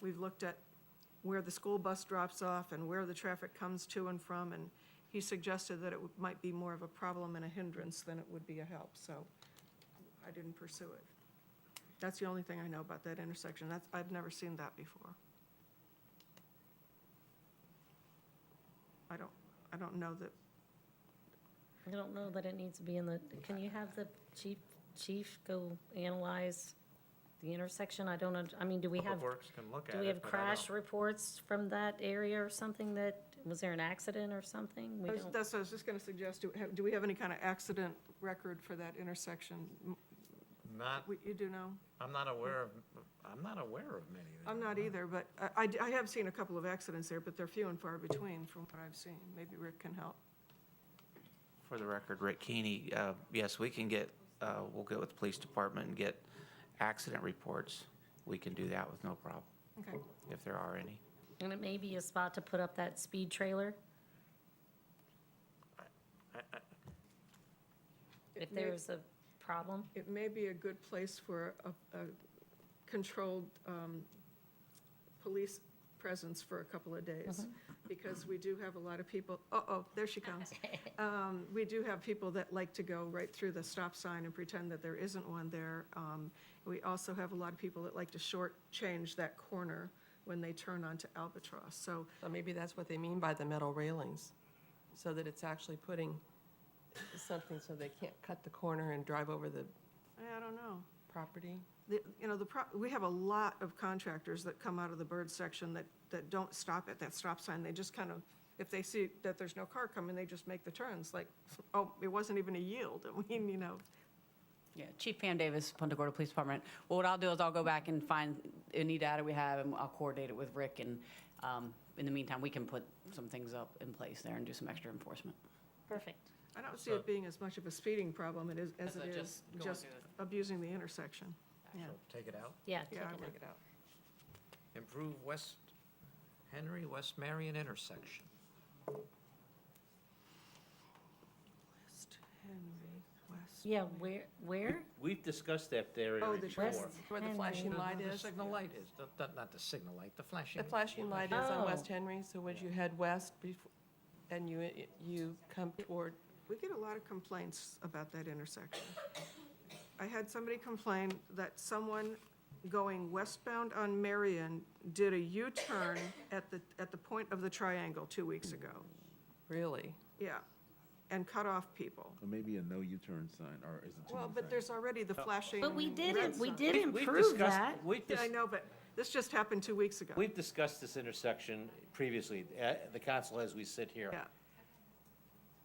We've looked at where the school bus drops off and where the traffic comes to and from, and he suggested that it would- might be more of a problem and a hindrance than it would be a help, so I didn't pursue it. That's the only thing I know about that intersection. That's, I've never seen that before. I don't, I don't know that, I don't know that it needs to be in the, can you have the chief, chief go analyze the intersection? I don't, un- I mean, do we have, Public Works can look at it. do we have but I crash don't- reports from that area or something that, was there an accident or something? We I was- don't, that's what I was just gonna suggest. Do, have- do we have any kind of accident record for that intersection? M- Not, we- You do know? I'm not aware of, I'm not aware of many. that- I'm not either, but I- I, d- I have seen a couple of accidents there, but they're few and far between from what I've seen. Maybe Rick can help. For the record, Rick Keeney, uh, yes, we can get, uh, we'll get with the police department and get accident reports. We can do that with no problem, Okay. if there are any. and it may be a spot to put up that speed trailer? If It may- there's a problem? It may be a good place for a, a controlled, um, police presence for a couple of days, because we do have a lot of people, uh-oh, there she comes. Um, we do have people that like to go right through the stop sign and pretend that there isn't one there. Um, we also have a lot of people that like to shortchange that corner when they turn onto Albatross, so So maybe that's what they mean by the metal railings, so that it's actually putting something so they can't cut the corner and drive over the I don't know. property. The, you know, the, pro- we have a lot of contractors that come out of the bird section that, that don't stop at that stop sign. They just kind of, if they see that there's no car coming, they just make the turns, like, oh, it wasn't even a yield. I mean, you know, Yeah, Chief Pam Davis, Punta Gorda Police Department. Well, what I'll do is I'll go back and find any data we have, and I'll coordinate it with Rick, and um, in the meantime, we can put some things up in place there and do some extra enforcement. Perfect. I don't see it being as much of a speeding problem it is- as As it it is just going just through the- abusing the intersection. Yeah, So Take it out. Yeah, take yeah, I it would. out. Take it out. Improve West Henry, West Marion intersection. West Henry, West. Yeah, where, where? We've discussed that there Oh, area the before. West Where the Henry. flashing Uh-huh. The- light The is. signal light is, the- the- not the signal light, the flashing. The flashing light is Oh. on West Henry, so as you head west bef- and you, you come toward, We get a lot of complaints about that intersection. I had somebody complain that someone going westbound on Marion did a U-turn at the, at the point of the triangle two weeks ago. really? Yeah, and cut off people. Or maybe a no U-turn sign, or is it too Well, many but signs? there's already the flashing. But we red didn't, we sign. did We've- we've improve discussed- that. We've, Yeah, I dis- know, but this just happened two weeks ago. we've discussed this intersection previously, at the council as we sit here. Yeah.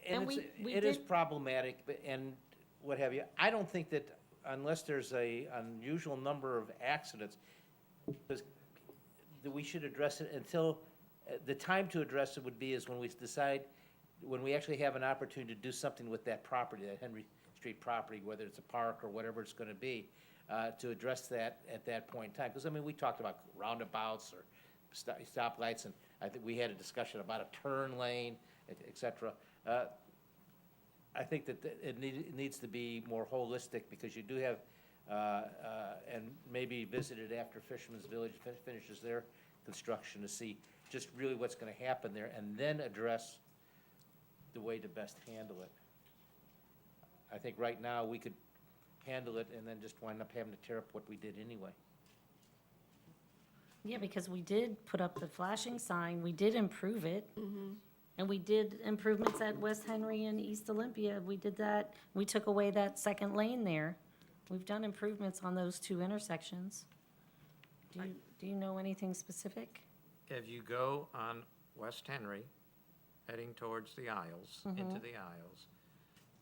And And it's, we- we it is did- problematic but- and what have you. I don't think that unless there's a unusual number of accidents, because that we should address it until, uh, the time to address it would be is when we decide, when we actually have an opportunity to do something with that property, that Henry Street property, whether it's a park or whatever it's gonna be, uh, to address that at that point in time. Because, I mean, we talked about roundabouts or sto- stoplights, and I think we had a discussion about a turn lane, et et cetera. Uh, I think that th- it need, it needs to be more holistic, because you do have, uh, uh, and maybe visited after Fisherman's Village fin- finishes their construction to see just really what's gonna happen there, and then address the way to best handle it. I think right now, we could handle it and then just wind up having to tear up what we did anyway. Yeah, because we did put up the flashing sign, we did improve it. And we did improvements at West Henry and East Olympia, we did that, we took away that second lane there. We've done improvements on those two intersections. Do you, do you know anything specific? If you go on West Henry, heading towards the Isles, into the Isles,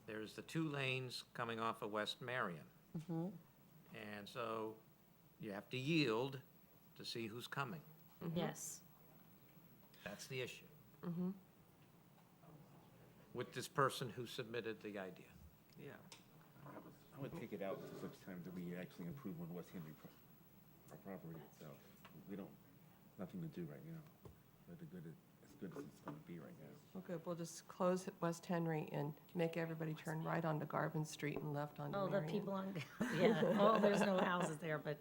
there's the two lanes coming off of West Marion. And so you have to yield to see who's coming. Yes. That's the issue. With this person who submitted the idea. Yeah. I would take it out to such time that we actually improve on West Henry pro- our property itself. We don't, nothing to do right now, but the good, it- as good as it's gonna be right now. Well, good, we'll just close West Henry and make everybody turn right onto Garvin Street and left onto Oh, Marion. the people on, yeah, oh, there's no houses there, but